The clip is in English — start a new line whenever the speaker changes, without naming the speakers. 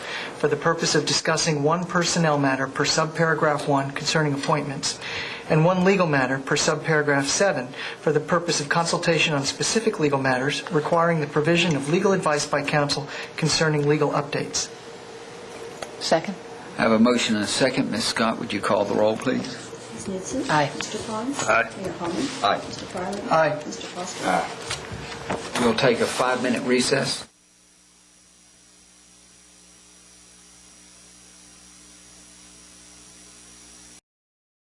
for the purpose of discussing one personnel matter per subparagraph 1 concerning appointments, and one legal matter per subparagraph 7 for the purpose of consultation on specific legal matters requiring the provision of legal advice by counsel concerning legal updates.
Second?
I have a motion and a second. Ms. Scott, would you call the roll, please?
Ms. Newton.
Aye.
Mr. Pons.
Aye.
Mayor Holman.
Aye.
Mr. Farley.
Aye.
Mr. Foster.
We'll take a five-minute recess.